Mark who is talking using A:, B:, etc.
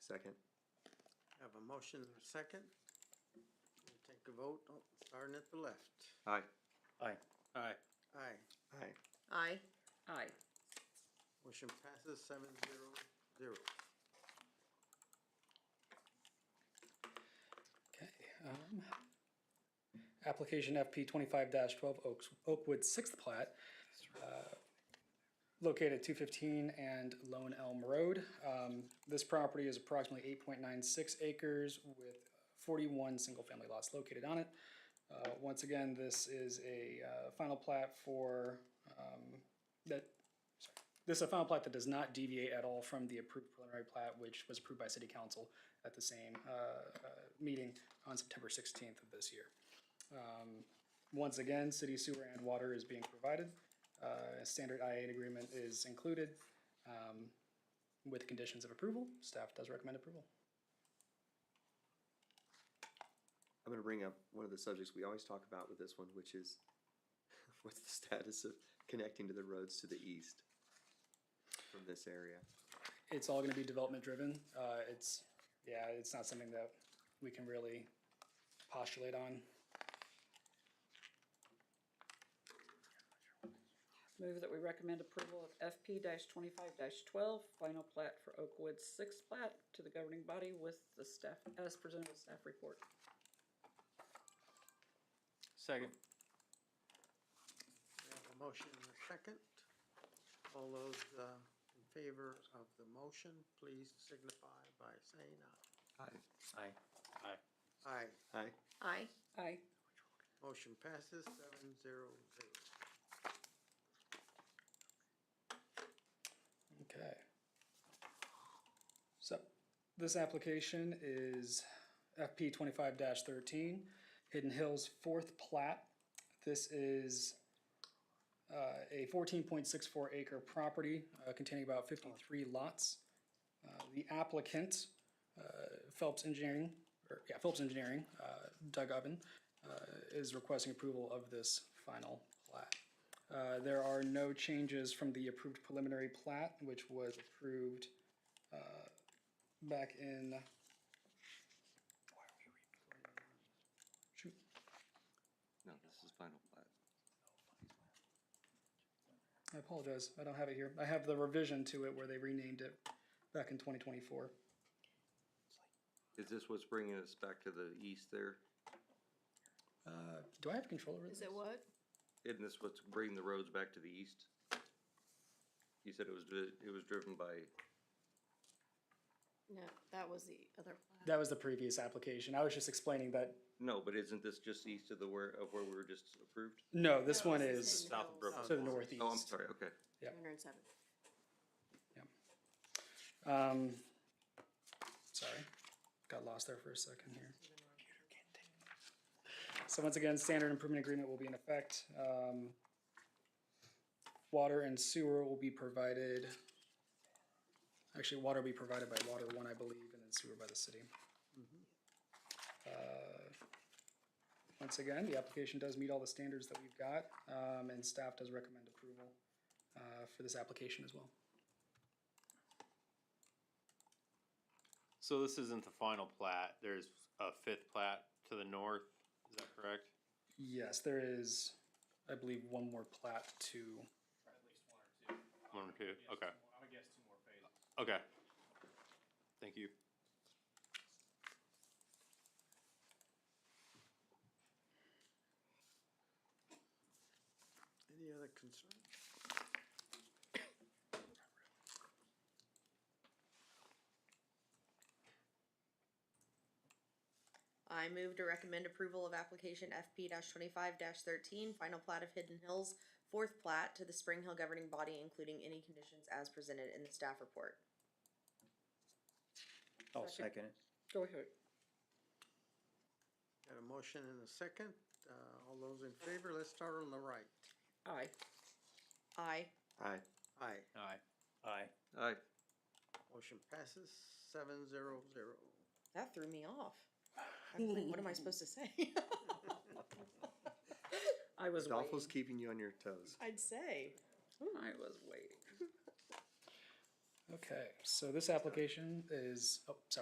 A: Second.
B: Have a motion and a second. We'll Take a vote, Oh, starting at the left.
A: Aye.
C: Aye.
B: Aye.
A: Aye.
D: Aye. Aye.
B: Motion passes seven zero zero.
C: Okay, um, application FP twenty-five twelve Oaks, Oakwood sixth plat, uh, located two fifteen and Lone Elm Road. Um, this property is approximately eight point nine six acres with forty-one single-family lots located on it. Uh, once again, this is a, uh, final plat for, um, that, sorry, this is a final plat that does not deviate at all from the approved preliminary plat, which was approved by city council at the same, uh, uh, meeting on September sixteenth of this year. Um, Once again, city sewer and water is being provided. Uh, a standard IA agreement is included, um, with conditions of approval. Staff does recommend approval.
A: I'm gonna bring up one of the subjects we always talk about with this one, which is what's the status of connecting to the roads to the east from this area?
C: It's all gonna be development driven. Uh, it's, yeah, it's not something that we can really postulate on.
D: Move that we recommend approval of FP twenty-five twelve, final plat for Oakwood's sixth plat to the governing body with the staff, as presented with staff report.
E: Second.
B: We have a motion and a second. All those, uh, in favor of the motion, please signify by saying
A: Aye.
E: Aye.
B: aye. Aye.
A: Aye.
D: Aye. Aye.
B: Motion passes seven zero zero.
C: Okay. So, this application is FP twenty-five thirteen, Hidden Hills fourth plat. This is uh, a fourteen point six four acre property uh, containing about fifty-three lots. Uh, The applicant, uh, Phelps Engineering, or, yeah, Phelps Engineering, uh, Doug Oven, uh, is requesting approval of this final plat. Uh, there are no changes from the approved preliminary plat, which was approved, uh, back in. Shoot,
F: No, this is final plat.
C: I apologize, I don't have it here. I have the revision to it where they renamed it back in twenty twenty-four.
F: Is this what's bringing us back to the east there?
C: Uh, do I have control over this?
G: Is it what?
F: Isn't this what's bringing the roads back to the east? You said it was, dri- it was driven by,
G: No, that was the other plat.
C: That was the previous application. I was just explaining that,
F: no, but isn't this just east of the where, of where we were just approved?
C: no, this
G: No,
C: one
G: this
C: is
G: Hidden
E: South of
G: Hills,
E: Brooklyn.
C: to the northeast.
F: Oh, I'm sorry, okay.
G: 207.
C: Um, sorry, got lost there for a second here. So once again, standard improvement agreement will be in effect. Um, water and sewer will be provided. Actually, water will be provided by Water One, I believe, and then sewer by the city. Uh, Once again, the application does meet all the standards that we've got, um, and staff does recommend approval, uh, for this application as well.
E: So this isn't the final plat. There's a fifth plat to the north. Is that correct?
C: Yes, there is, I believe, one more plat to,
E: One or two? Okay. I would guess two more phases. Okay. Thank you.
B: Any other concerns?
G: I move to recommend approval of application FP twenty-five thirteen, final plat of Hidden Hills, fourth plat to the Spring Hill governing body, including any conditions as presented in the staff report.
E: I'll second it.
D: Go ahead.
B: Got a motion and a second. Uh, all those in favor, let's start on the right.
D: Aye.
G: Aye.
A: Aye.
B: Aye.
E: Aye. Aye.
F: Aye,
B: Motion passes seven zero zero.
G: That threw me off. I was like, what am I supposed to say?
D: I was
A: Adolfo's
D: waiting.
A: keeping you on your toes.
G: I'd say.
D: I was waiting.
C: okay, so this application is, oh, sorry.